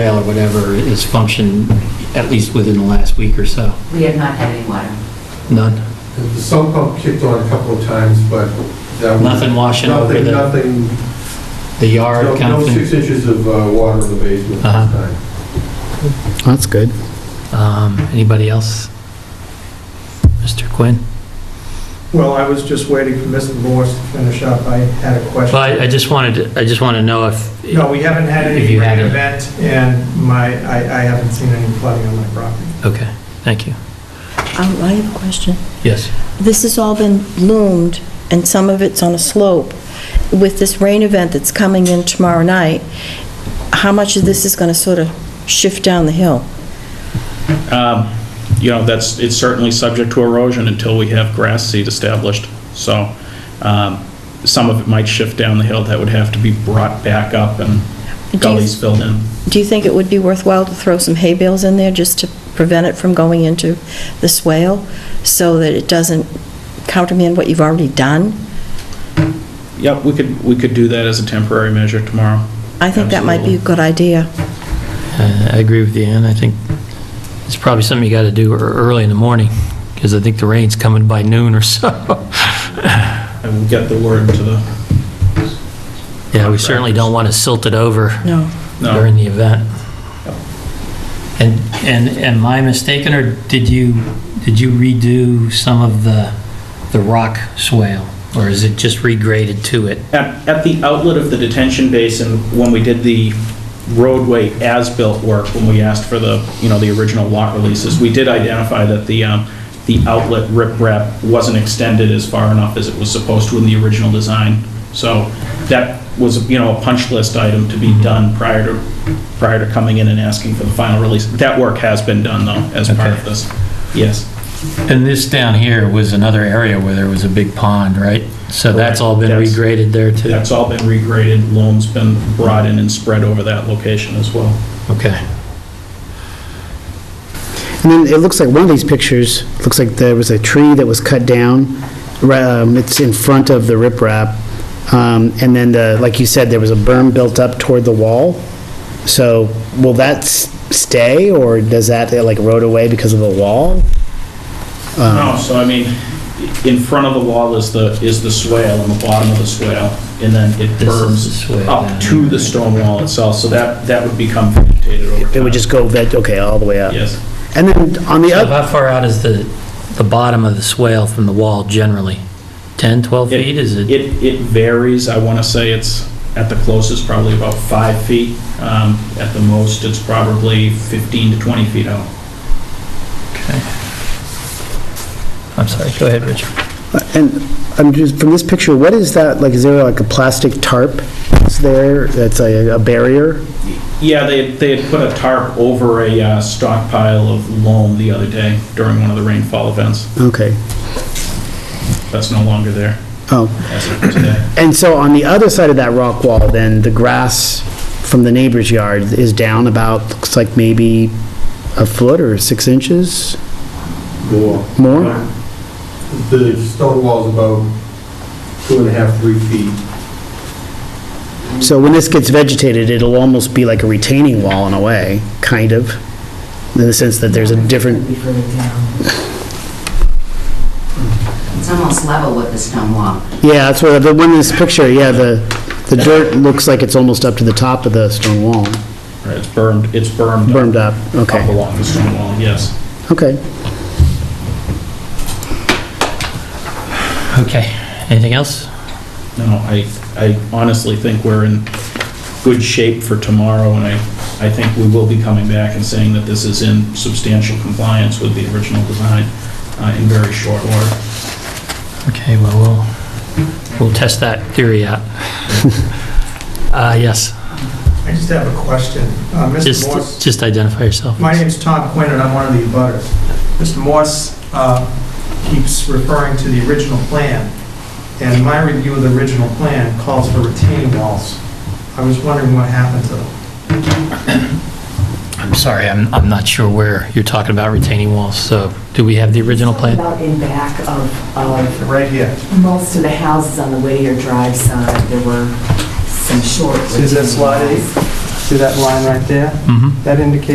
trail or whatever is functioned at least within the last week or so? We have not had any water. None? The sump pump kicked on a couple of times, but that was... Nothing washing over Nothing- the, Nothing, the yard no- kind no of six thing? inches of uh, water in the basement this Uh-huh. time. That's good. Um, Anybody else? Mr. Quinn? Well, I was just waiting for Mr. Morris to finish up. I had a question. Well, I- I just wanted, to- I just want to know if, No, we haven't had uh, If any you had rain it. event, and my, I I haven't seen any flooding on my property. okay, thank you. Um, I have a question. Yes. This has all been loomed, and some of it's on a slope. With this rain event that's coming in tomorrow night, how much of this is going to sort of shift down the hill? Um, You know, that's, it's certainly subject to erosion until we have grass seed established. So um, some of it might shift down the hill that would have to be brought back up and Do you- gullies filled in. Do you think it would be worthwhile to throw some hay bales in there just to prevent it from going into the swale, so that it doesn't countermand what you've already done? Yep, we could, we could do that as a temporary measure tomorrow. I think that might be a Absolutely. good idea. Uh, I agree with you, Ann. I think it's probably something you got to do ear- early in the morning, because I think the rain's coming by noon or so. I will get the word to the, Yeah, we certainly don't want to silt it over No. during no, the event. And, and am I mistaken, or did you, did you redo some of the, the rock swale? Or is it just regraded to it? at, at the outlet of the detention basin, when we did the roadway as-built work, when we asked for the, you know, the original lot releases, we did identify that the, um, the outlet riprap wasn't extended as far enough as it was supposed to in the original design. So that was, you know, a punch list item to be done prior to, prior to coming in and asking for the final release. That work has been done, though, as part Okay. of this. Yes. And this down here was another area where there was a big pond, right? So that's all been Correct. regraded there too? That's all been regraded, loam's been brought in and spread over that location as well. Okay. And then it looks like one of these pictures, looks like there was a tree that was cut down. Ra- um, It's in front of the riprap. Um, And then the, like you said, there was a berm built up toward the wall. So will that s- stay or does that uh, like erode away because of the wall? Um, No, so I mean, in front of the wall is the, is the swale, and the bottom of the swale, and then it This is berms the swale down up to here. the stone wall itself, so that, that would become vegetated over time. It would just go, veg- okay, all the way up? Yes. And then on the So other, how far out is the, the bottom of the swale from the wall generally? 10, 12 It- feet, is it? It, it varies, I want to say it's, at the closest, probably about five feet. Um, At the most, it's probably 15 to 20 feet out. I'm sorry, go ahead, Richard. and I'm just, from this picture, what is that? Like, is there like a plastic tarp that's there that's a a barrier? Yeah, they, they had put a tarp over a uh, stockpile of loam the other day during one of the rainfall events. Okay, That's no longer there oh. as of today. And so on the other side of that rock wall, then, the grass from the neighbor's yard is down about, looks like maybe a foot or six inches More. more? The stone wall's about two and a half, three feet. So when this gets vegetated, it'll almost be like a retaining wall in a way, kind of, in the sense that there's a different, Be further down. It's almost level with the stone wall. yeah, that's where, the one in this picture, yeah, the, the dirt looks like it's almost up to the top of the stone wall, Right, it's bermed, it's bermed. up- bermed up, Up okay, along the stone wall, yes. okay. Okay, anything else? No, I, I honestly think we're in good shape for tomorrow, and I, I think we will be coming back and saying that this is in substantial compliance with the original design uh, in very short order. Okay, well, we'll, we'll test that theory out. Uh, yes, I just have a question. Uh, Mr. Morris? just, just identify yourself. My name's Tom Quinn, and I'm one of the abutters. Mr. Morse uh, keeps referring to the original plan, and my review of the original plan calls for retaining walls. I was wondering what happened to them. I'm sorry, I'm, I'm not sure where you're talking about retaining walls, so do we have the original plan? About in back of, of Right here. most of the houses on the Whittier Drive side, there were some short. See that slide eight? See that line right there? Mm-hmm. That indicates